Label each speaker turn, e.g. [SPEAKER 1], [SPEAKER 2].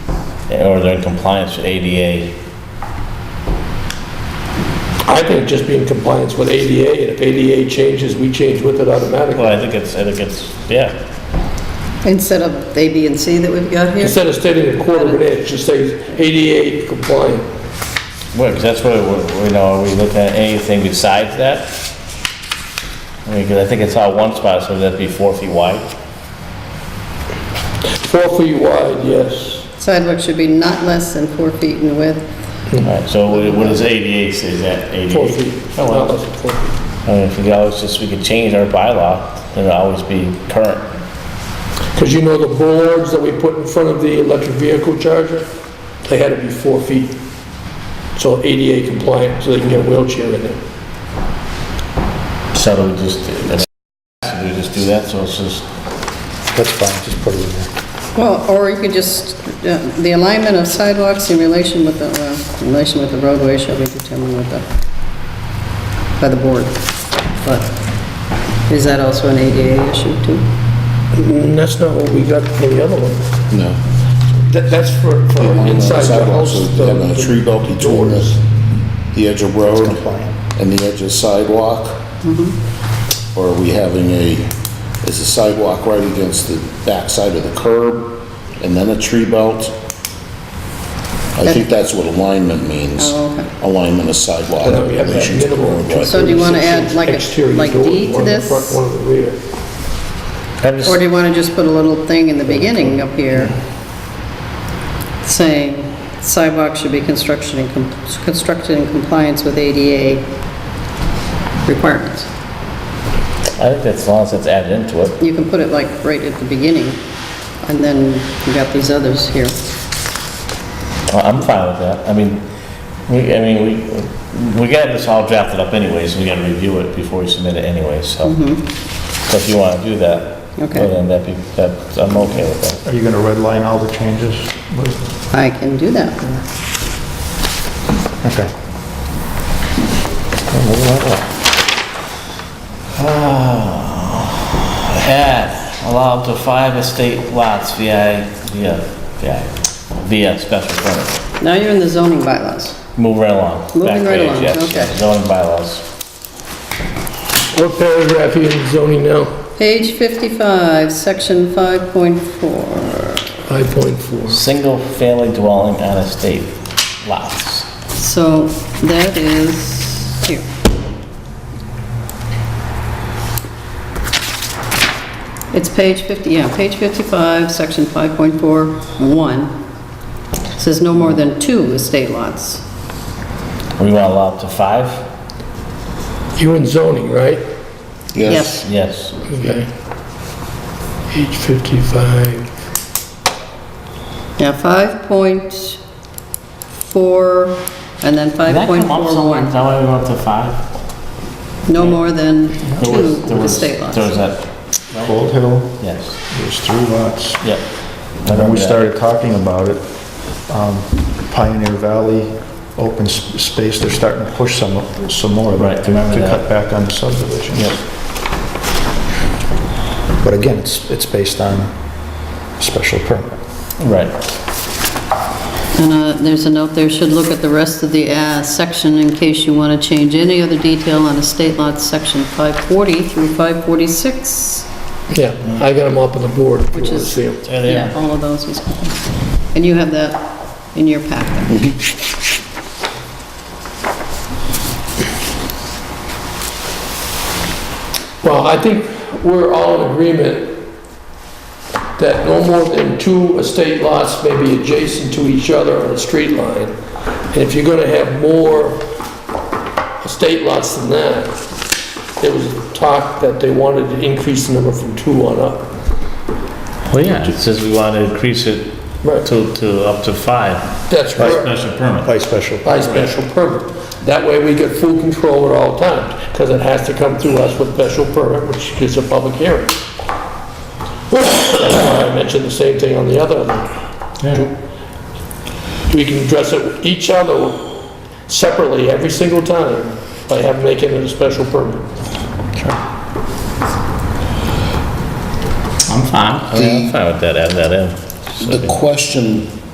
[SPEAKER 1] or they're in compliance with ADA.
[SPEAKER 2] I think just be in compliance with ADA, and if ADA changes, we change with it automatically.
[SPEAKER 1] Well, I think it's, I think it's, yeah,
[SPEAKER 3] Instead of A, B, and C that we've got here?
[SPEAKER 2] Instead of stating a quarter of an inch, just say ADA compliant.
[SPEAKER 1] well, 'cause that's what, we- we know, are we looking at anything besides that? I mean, 'cause I think it's all one spot, so that'd be four feet wide.
[SPEAKER 2] Four feet wide, yes.
[SPEAKER 3] Sidewalk should be not less than four feet in width.
[SPEAKER 1] Alright, so what what is ADA, say? is that ADA?
[SPEAKER 2] Mm-hmm. Four feet.
[SPEAKER 1] Oh,
[SPEAKER 2] Not
[SPEAKER 1] well,
[SPEAKER 2] less than four feet.
[SPEAKER 1] I mean, if we could always just, we could change our bylaw, and it'll always be current.
[SPEAKER 2] Because you know the boards that we put in front of the electric vehicle charger, they had to be four feet. So ADA compliant, so they can get a wheelchair in there.
[SPEAKER 1] So do we just, do we just do that, so it's just,
[SPEAKER 4] That's fine, just put it in there.
[SPEAKER 3] Well, or you could just, uh, the alignment of sidewalks in relation with the, well, in relation with the roadway shall be determined with the, by the board. But is that also an ADA issue too?
[SPEAKER 2] And that's not what we got for the other one.
[SPEAKER 5] No.
[SPEAKER 2] That, that's for, for inside the house.
[SPEAKER 5] Sidewalks,
[SPEAKER 2] the-
[SPEAKER 5] so Having a tree belt between
[SPEAKER 2] doors.
[SPEAKER 5] the edge of road
[SPEAKER 4] compliant.
[SPEAKER 5] and the edge of sidewalk?
[SPEAKER 2] Mm-hmm.
[SPEAKER 5] Or are we having a, is the sidewalk right against the backside of the curb and then a tree belt? I think that's what alignment means.
[SPEAKER 3] Oh, okay.
[SPEAKER 5] Alignment of sidewalk.
[SPEAKER 2] And then we have that
[SPEAKER 5] relations to the
[SPEAKER 2] minimum of
[SPEAKER 5] roadway.
[SPEAKER 3] So do you wanna add like a-
[SPEAKER 2] Exterior
[SPEAKER 3] like
[SPEAKER 2] door,
[SPEAKER 3] D to
[SPEAKER 2] one in the
[SPEAKER 3] this?
[SPEAKER 2] front, One in the rear.
[SPEAKER 1] I'm just,
[SPEAKER 3] Or do you want to just put a little thing in the beginning up here saying sidewalks should be construction in com- constructed in compliance with ADA requirements?
[SPEAKER 1] I think that's as long as it's added into it.
[SPEAKER 3] You can put it like right at the beginning, and then you got these others here.
[SPEAKER 1] I- I'm fine with that. I mean, we, I mean, we, we got this all drafted up anyways, we gotta review it before we submit it anyways, so. So if you wanna do that, well,
[SPEAKER 3] Mm-hmm. Okay.
[SPEAKER 1] then that'd be, that, I'm okay with that.
[SPEAKER 4] Are you going to redline all the changes?
[SPEAKER 3] I can do that.
[SPEAKER 4] Okay.
[SPEAKER 1] Add, allow up to five estate lots via, via, via, via special permit.
[SPEAKER 3] Now you're in the zoning bylaws.
[SPEAKER 1] Move right along. Back
[SPEAKER 3] Moving right
[SPEAKER 1] page,
[SPEAKER 3] along,
[SPEAKER 1] yes,
[SPEAKER 3] okay.
[SPEAKER 1] Zoning bylaws.
[SPEAKER 2] What paragraph are you in zoning now?
[SPEAKER 3] Page 55, section 5.4.
[SPEAKER 2] 5.4.
[SPEAKER 1] Single-family dwelling on estate lots.
[SPEAKER 3] So that is here. It's page 50, yeah, page 55, section 5.41. Says no more than two estate lots.
[SPEAKER 1] We want to allow up to five?
[SPEAKER 2] You're in zoning, right?
[SPEAKER 5] Yes.
[SPEAKER 1] Yes.
[SPEAKER 2] Okay. Page 55.
[SPEAKER 3] Yeah, 5.4, and then 5.41.
[SPEAKER 1] That way we went up to five?
[SPEAKER 3] No more than
[SPEAKER 1] There was- there
[SPEAKER 3] two
[SPEAKER 1] was-
[SPEAKER 3] estate lots.
[SPEAKER 1] There was that,
[SPEAKER 4] Gold Hill,
[SPEAKER 1] yes,
[SPEAKER 4] there's three lots.
[SPEAKER 1] yep.
[SPEAKER 4] And when we started talking about it, um, Pioneer Valley, open s- space, they're starting to push some, some more.
[SPEAKER 1] Right, I
[SPEAKER 4] To
[SPEAKER 1] remember
[SPEAKER 4] to
[SPEAKER 1] that.
[SPEAKER 4] cut back on the subdivision.
[SPEAKER 1] Yep.
[SPEAKER 4] But again, it's, it's based on special permit.
[SPEAKER 1] Right,
[SPEAKER 3] And uh, there's a note there, should look at the rest of the uh, section in case you want to change any other detail on estate lots, section 540 through 546.
[SPEAKER 2] Yeah, I got them up on the board if you
[SPEAKER 3] Which
[SPEAKER 2] want to
[SPEAKER 3] is-
[SPEAKER 2] see them.
[SPEAKER 1] there they
[SPEAKER 3] Yeah,
[SPEAKER 1] are.
[SPEAKER 3] all of those. is- And you have that in your packet.
[SPEAKER 2] Well, I think we're all in agreement that no more than two estate lots may be adjacent to each other on a street line. And if you're gonna have more estate lots than that, there was talk that they wanted to increase the number from two on up.
[SPEAKER 1] Well, yeah, it says we want to increase it
[SPEAKER 2] Right.
[SPEAKER 1] to, to up to five
[SPEAKER 2] That's
[SPEAKER 1] by
[SPEAKER 2] right,
[SPEAKER 1] special permit.
[SPEAKER 4] By special.
[SPEAKER 2] by special permit. That way we get full control at all times, because it has to come through us with special permit, which is a public hearing. That's why I mentioned the same thing on the other one. we can address it each other separately every single time by having, making it a special permit.
[SPEAKER 1] Oh, I'm fine. I mean, I'm fine with that, add that in.
[SPEAKER 5] The question